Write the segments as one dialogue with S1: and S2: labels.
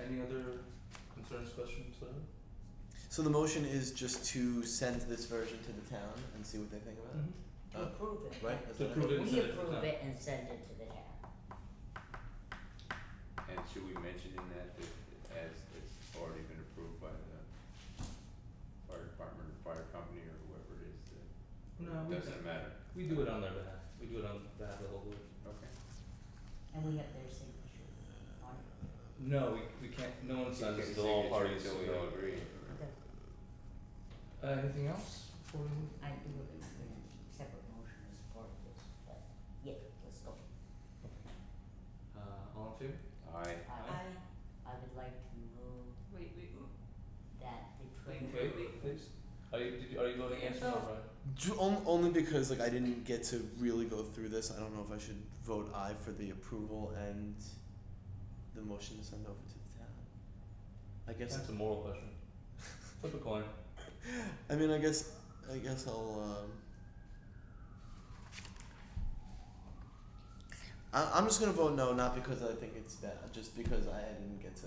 S1: Any other concerns, questions, whatever?
S2: So the motion is just to send this version to the town and see what they think about
S1: Uh,
S3: to approve it.
S2: it, Uh, right? Is
S1: To
S2: that
S1: approve
S2: it?
S1: it. Uh.
S3: We
S1: send to the
S3: approve
S1: town.
S3: it and send it to the town.
S4: And should we mention in that that as it's already been approved by the fire department or fire company or whoever it is that
S1: No, we
S4: doesn't matter,
S1: we do it on their behalf. We do it on behalf of the whole group.
S4: okay.
S3: And we have their signature on it.
S1: No, we we can't. No one signs
S4: Can't
S1: it. The
S4: say
S1: all
S4: it's
S1: parties.
S4: Until we all agree.
S3: Okay.
S1: Uh, anything else? Before we move?
S3: I do have a separate motion as part of this, but yeah, let's go.
S1: Uh, all in favor?
S4: Aye.
S3: I I would like to move
S5: Wait, wait, wait.
S3: that the
S5: Wait,
S3: treasurer
S1: Wait, please. Are you did you, are you voting yes or no,
S5: Oh.
S1: Brian?
S2: Do, on, only because like I didn't get to really go through this. I don't know if I should vote aye for the approval and the motion to send over to the town. I guess.
S1: That's a moral question. Flip a coin.
S2: I mean, I guess. I guess I'll. Um, um, I, I'm just gonna vote no, not because I think it's bad, just because I didn't get to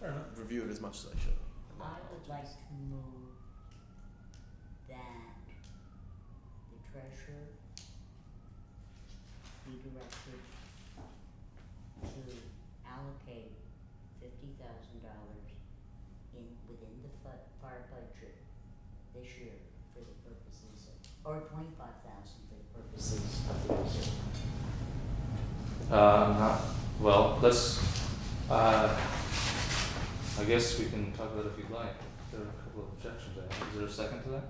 S1: Fair enough.
S2: review it as much as I should. And
S3: I would like to move that the treasurer be directed to allocate fifty thousand dollars in, within the fi- fire budget this year for the purposes of, or twenty-five thousand for the purposes of the reserve.
S1: Um, huh. well, let's. Uh, I guess we can talk about it if you'd like. There are a couple of objections. I have. Is there a second to that?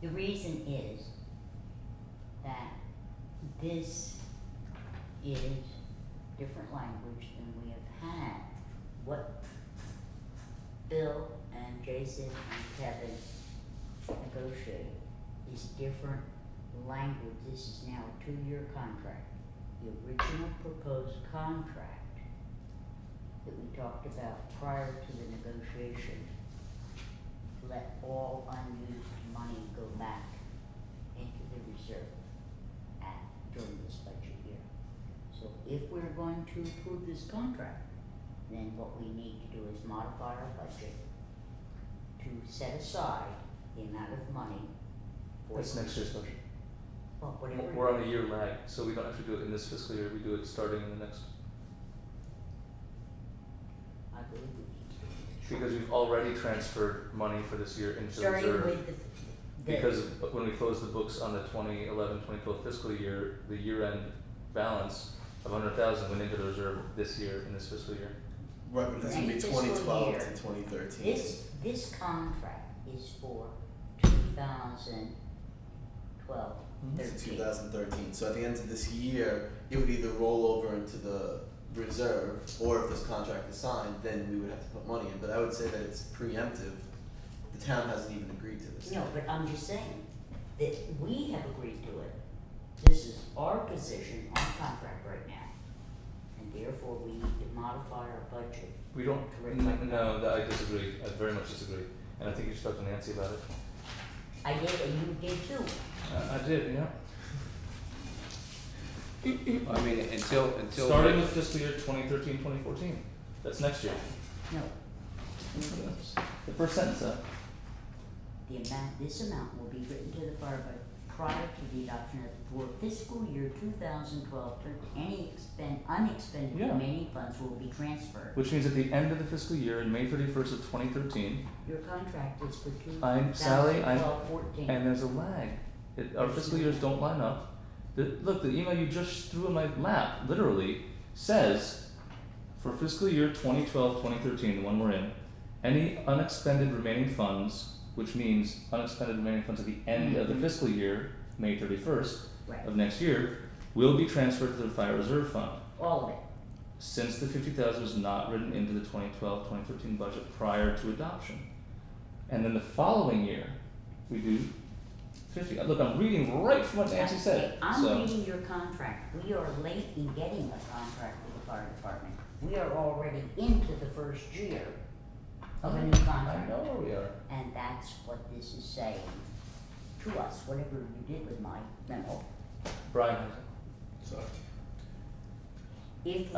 S3: The reason is that this is different language than we have had. What Bill and Jason and Kevin negotiate is different language. This is now a two-year contract. The original proposed contract that we talked about prior to the negotiation let all unused money go back into the reserve at, during this budget year. So if we're going to approve this contract, then what we need to do is modify our budget to set aside the amount of money for.
S1: That's next year's budget.
S3: Well, whatever.
S1: We're on a year lag, so we don't actually do it in this fiscal year. We do it starting in the next
S3: I believe we
S1: because we've already transferred money for this year into
S3: need to.
S1: reserve.
S3: Starting with the, the.
S1: Because when we closed the books on the 2011, 2012 fiscal year, the year-end balance of 100,000 went into the reserve this year, in this fiscal year.
S2: Right, but this would be
S3: Next
S2: twenty twelve
S3: fiscal
S2: to
S3: year.
S2: twenty thirteen.
S3: This, this contract is for two thousand twelve,
S1: Mhm.
S3: thirteen.
S2: two thousand thirteen, so at the end of this year, it would either roll over into the reserve, or if this contract is signed, then we would have to put money in, but I would say that it's preemptive. The town hasn't even agreed to this.
S3: No, but I'm just saying that we have agreed to it. This is our position on contract right now. And therefore, we need to modify our budget.
S1: We don't,
S3: To reflect
S1: n- no, that I disagree, I very much disagree. And I think you spoke to Nancy about it.
S3: I did, and you did too.
S1: I, I did, yeah.
S4: I mean, until, until.
S1: Starting with fiscal year 2013, 2014, that's next year.
S3: No.
S1: The first sentence, though.
S3: The amount, this amount will be written to the fire budget prior to the adoption of for fiscal year two thousand twelve, any expend, unexpended
S1: Yeah.
S3: remaining funds will be transferred.
S1: Which means at the end of the fiscal year, in May 31st of 2013,
S3: Your contract is for two
S1: I'm-
S3: thousand
S1: Sally, I'm-
S3: twelve, fourteen.
S1: And there's a lag. It, our fiscal years don't line up. The, look, the email you just threw in my lap, literally, says for fiscal year 2012 2013, the one we're in, any unexpended remaining funds, which means unexpended remaining funds at the end of the
S3: Mhm.
S1: fiscal year, May 31st
S3: Right,
S1: of next year, will be transferred to the Fire Reserve Fund.
S3: all of it.
S1: Since the 50,000 was not written into the 2012 2013 budget prior to adoption. And then the following year, we do 50. Look, I'm reading right from what Nancy
S3: Okay,
S1: said. so.
S3: I'm reading your contract, we are late in getting a contract with the fire department, we are already into the first year of a new
S1: I
S3: contract.
S1: know where we are.
S3: And that's what this is saying to us, whatever you did with my memo,
S1: Brian has it.
S2: So.
S3: if